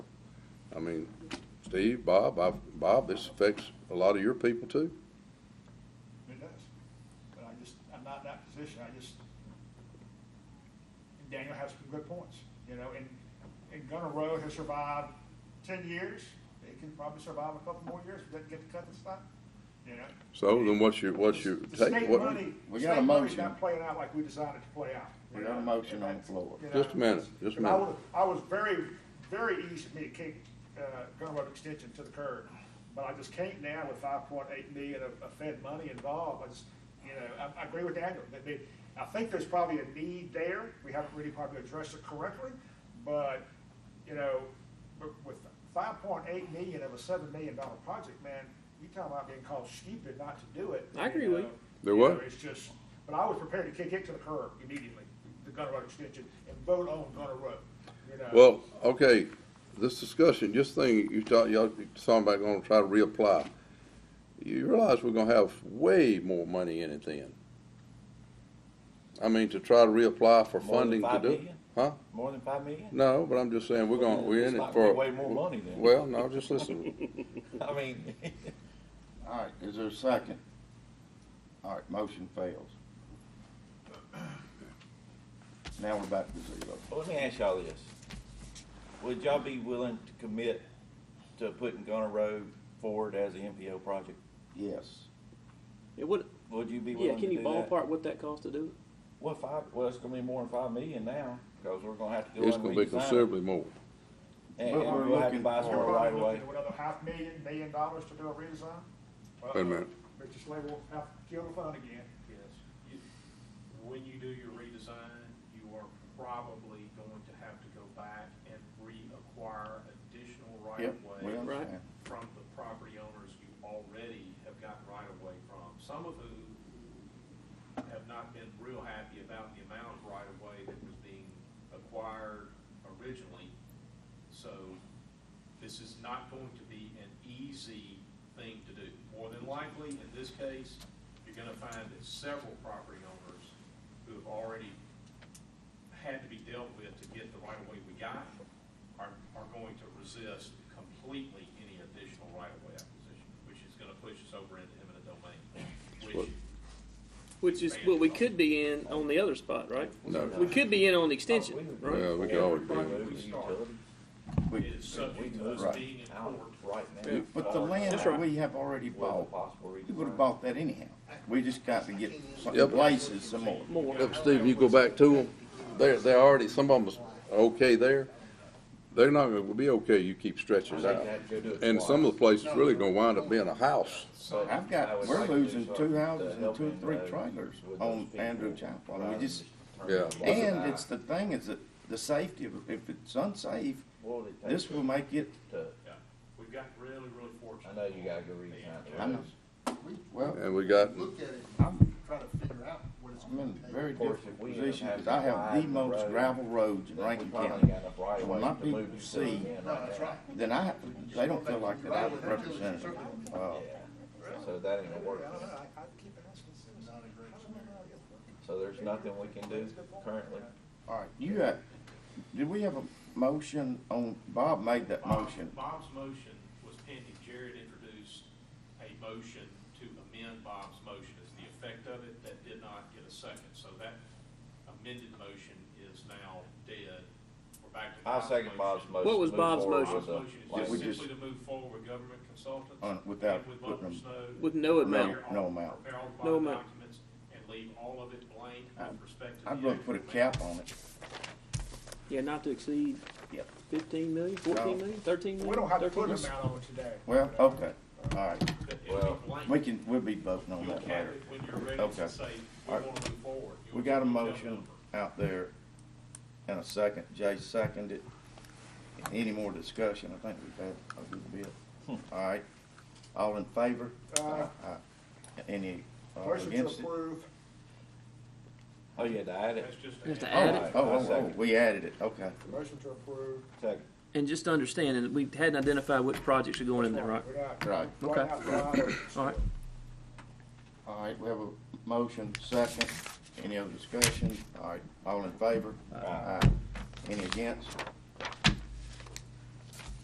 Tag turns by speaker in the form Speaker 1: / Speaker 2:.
Speaker 1: mean, Steve, Bob, I've, Bob, this affects a lot of your people too.
Speaker 2: It does. But I just, I'm not in that position, I just, and Daniel has some good points, you know, and, and Gunner Road has survived ten years. It can probably survive a couple more years, if it doesn't get to cut and stuff, you know?
Speaker 1: So then what's your, what's your
Speaker 2: The
Speaker 1: take?
Speaker 2: state
Speaker 1: What-
Speaker 2: money,
Speaker 3: We got a
Speaker 2: state money's
Speaker 3: motion.
Speaker 2: not playing out like we designed it to play out. you
Speaker 3: We got a
Speaker 2: know?
Speaker 3: motion
Speaker 2: And
Speaker 3: on the
Speaker 2: that's-
Speaker 3: floor.
Speaker 2: you
Speaker 1: Just a
Speaker 2: know,
Speaker 1: minute, just a
Speaker 2: and I
Speaker 1: minute.
Speaker 2: was, I was very, very easy for me to kick, uh, Gunner Road Extension to the curb. But I just can't now with five point eight million of, of Fed money involved, I just, you know, I, I agree with Daniel, that they, I think there's probably a need there, we haven't really probably addressed it correctly, but, you know, with- with five point eight million of a seven million dollar project, man, you talking about being called stupid not to do it.
Speaker 4: I agree with
Speaker 2: know?
Speaker 4: you.
Speaker 1: There what?
Speaker 2: know, It's just, but I was prepared to kick it to the curb immediately, the Gunner Road extension, and vote on Gunner Road, you know?
Speaker 1: Well, okay, this discussion, just thing, you thought, y'all, somebody gonna try to reapply. You realize we're gonna have way more money in it then. I mean, to try to reapply for
Speaker 5: More
Speaker 1: funding
Speaker 5: than
Speaker 1: to
Speaker 5: five
Speaker 1: do.
Speaker 5: million?
Speaker 1: Huh?
Speaker 5: More than five million?
Speaker 1: No, but I'm just saying, we're gonna,
Speaker 5: Well,
Speaker 1: we're
Speaker 5: it's
Speaker 1: in it
Speaker 5: not
Speaker 1: for.
Speaker 5: gonna be way more money then.
Speaker 1: Well, no, just listen,
Speaker 5: I mean,
Speaker 3: All right, is there a second? All right, motion fails. Now we're back to zero.
Speaker 5: well, let me ask y'all this. Would y'all be willing to commit to putting Gunner Road forward as an MPO project?
Speaker 3: Yes.
Speaker 4: It would,
Speaker 5: Would you be
Speaker 4: yeah,
Speaker 5: willing to
Speaker 4: can
Speaker 5: do
Speaker 4: you
Speaker 5: that?
Speaker 4: ballpark what that cost to do it?
Speaker 5: Well, five, well, it's gonna be more than five million now, cause we're gonna have to go
Speaker 1: it's
Speaker 5: and
Speaker 1: gonna be
Speaker 5: redesign. it.
Speaker 1: considerably more.
Speaker 5: And
Speaker 3: But
Speaker 5: and
Speaker 3: we're
Speaker 5: we'll have to
Speaker 3: looking
Speaker 5: buy
Speaker 3: for-
Speaker 5: some
Speaker 2: You're
Speaker 5: right
Speaker 2: probably
Speaker 5: away.
Speaker 2: looking at another half million, million dollars to do a redesign?
Speaker 1: Wait a minute.
Speaker 2: Mr. Slade will have to kill the fund again.
Speaker 6: Yes. You- When you do your redesign, you are probably going to have to go back and reacquire additional right
Speaker 3: Yep,
Speaker 6: of
Speaker 3: we
Speaker 6: way
Speaker 3: understand.
Speaker 6: from the property owners you already have gotten right of way from, some of whom have not been real happy about the amount of right of way that was being acquired originally. So this is not going to be an easy thing to do. More than likely, in this case, you're gonna find that several property owners who have already had to be dealt with to get the right of way we got are, are going to resist completely any additional right of way acquisition, which is gonna push us over into eminent domain, which
Speaker 4: Which is what we could be in on the other spot, right?
Speaker 1: No.
Speaker 4: We could be in on the extension,
Speaker 5: would-
Speaker 4: right?
Speaker 1: Yeah, we could always do it.
Speaker 5: Road and utilities.
Speaker 3: We-
Speaker 6: is subject to
Speaker 3: Right.
Speaker 6: us being in
Speaker 5: out
Speaker 6: court.
Speaker 5: right now.
Speaker 3: But the land
Speaker 4: That's
Speaker 3: that
Speaker 4: right.
Speaker 3: we have already
Speaker 5: Well, uh,
Speaker 3: bought,
Speaker 5: possible
Speaker 3: we would've
Speaker 5: redesign.
Speaker 3: bought that anyhow. We just got to get some
Speaker 1: Yep.
Speaker 3: places some more.
Speaker 4: More.
Speaker 1: Yep, Steve, you go back to them, they're, they're already, some of them are okay there. They're not gonna be okay, you keep stretching it out. And some of the places really gonna wind up being a house.
Speaker 5: So
Speaker 3: I've got, we're losing two houses and two, three
Speaker 5: uh,
Speaker 3: trailers on Andrew Chapel. I mean, we just,
Speaker 1: Yeah.
Speaker 3: and it's the thing is that the safety of, if it's unsafe, this will make it,
Speaker 6: Yeah, we've got really, really
Speaker 5: I
Speaker 6: fortunate.
Speaker 5: know you gotta go redesign.
Speaker 3: I know.
Speaker 7: We
Speaker 3: well,
Speaker 1: And we got,
Speaker 7: look at it, and try to figure out what it's
Speaker 3: I'm
Speaker 7: gonna
Speaker 3: in
Speaker 7: take.
Speaker 3: a very
Speaker 5: Of course,
Speaker 3: different
Speaker 5: if we
Speaker 3: position,
Speaker 5: have
Speaker 3: because I have the
Speaker 5: widen
Speaker 3: most
Speaker 5: road,
Speaker 3: gravel roads in Rankin County.
Speaker 5: County,
Speaker 3: When my people see-
Speaker 7: No, that's right.
Speaker 3: Then I, they don't feel like that I'm representative. Uh,
Speaker 5: So that ain't gonna work,
Speaker 2: I, I keep asking citizens.
Speaker 7: Not a great solution.
Speaker 5: so there's nothing we can do currently.
Speaker 3: All right, you got, did we have a motion on, Bob made that
Speaker 6: Bob-
Speaker 3: motion.
Speaker 6: Bob's motion was pending. Jared introduced a motion to amend Bob's motion as the effect of it. That did not get a second, so that amended motion is now dead. We're back to.
Speaker 5: I'll second Bob's motion.
Speaker 4: What was
Speaker 5: Move
Speaker 4: Bob's
Speaker 5: forward
Speaker 4: motion?
Speaker 5: with
Speaker 6: Bob's
Speaker 5: the-
Speaker 6: motion
Speaker 3: Did
Speaker 6: is
Speaker 3: we
Speaker 6: just
Speaker 3: just-
Speaker 6: simply to move forward with government consultants.
Speaker 3: Uh, without
Speaker 6: and with
Speaker 3: putting
Speaker 6: Lumber
Speaker 3: them-
Speaker 6: Snow.
Speaker 4: With no
Speaker 3: No,
Speaker 4: amount.
Speaker 6: prepare all-
Speaker 3: no amount.
Speaker 6: Prepare all the
Speaker 4: No
Speaker 6: bond
Speaker 4: amount.
Speaker 6: documents and leave all of it blank
Speaker 3: I'd-
Speaker 6: with respect to the.
Speaker 3: I'd rather
Speaker 6: actual
Speaker 3: put a
Speaker 6: amount.
Speaker 3: cap on it.
Speaker 4: Yeah, not to exceed
Speaker 3: Yep.
Speaker 4: fifteen million, fourteen million, thirteen million?
Speaker 2: We don't have to
Speaker 4: 13
Speaker 2: put an
Speaker 4: million?
Speaker 2: amount on it today. Uh,
Speaker 3: Well, okay, all right,
Speaker 6: But it'll be
Speaker 5: Well,
Speaker 6: blank.
Speaker 3: we can, we'll be voting on
Speaker 6: You'll
Speaker 3: that
Speaker 6: cap
Speaker 3: later.
Speaker 6: it when you're ready
Speaker 3: Okay.
Speaker 6: to say, we
Speaker 3: All right.
Speaker 6: want to move forward.
Speaker 3: We
Speaker 6: You'll-
Speaker 3: got a
Speaker 6: you'll tell the
Speaker 3: motion
Speaker 6: number.
Speaker 3: out there and a second, Jay seconded. Any more discussion? I think we've had a good bit.
Speaker 4: Hmm.
Speaker 3: All right, all in favor?
Speaker 2: Aye.
Speaker 3: Aye. Any uh,
Speaker 2: Motion to
Speaker 3: oh, against it?
Speaker 2: approve,
Speaker 5: Oh, yeah, to add
Speaker 6: That's
Speaker 5: it,
Speaker 6: just.
Speaker 4: Just to
Speaker 3: Oh,
Speaker 4: Add it.
Speaker 3: oh, oh, oh,
Speaker 5: Second.
Speaker 3: we added it, okay.
Speaker 2: motion to approve.
Speaker 5: second.
Speaker 4: And just to understand, and we hadn't identified which projects are going in there, right?
Speaker 2: We're not-
Speaker 3: Right.
Speaker 2: we're
Speaker 4: Okay.
Speaker 2: not allowed
Speaker 4: All right.
Speaker 3: All right, we have a motion, second. Any other discussion? All right, all in favor? Aye. Any against?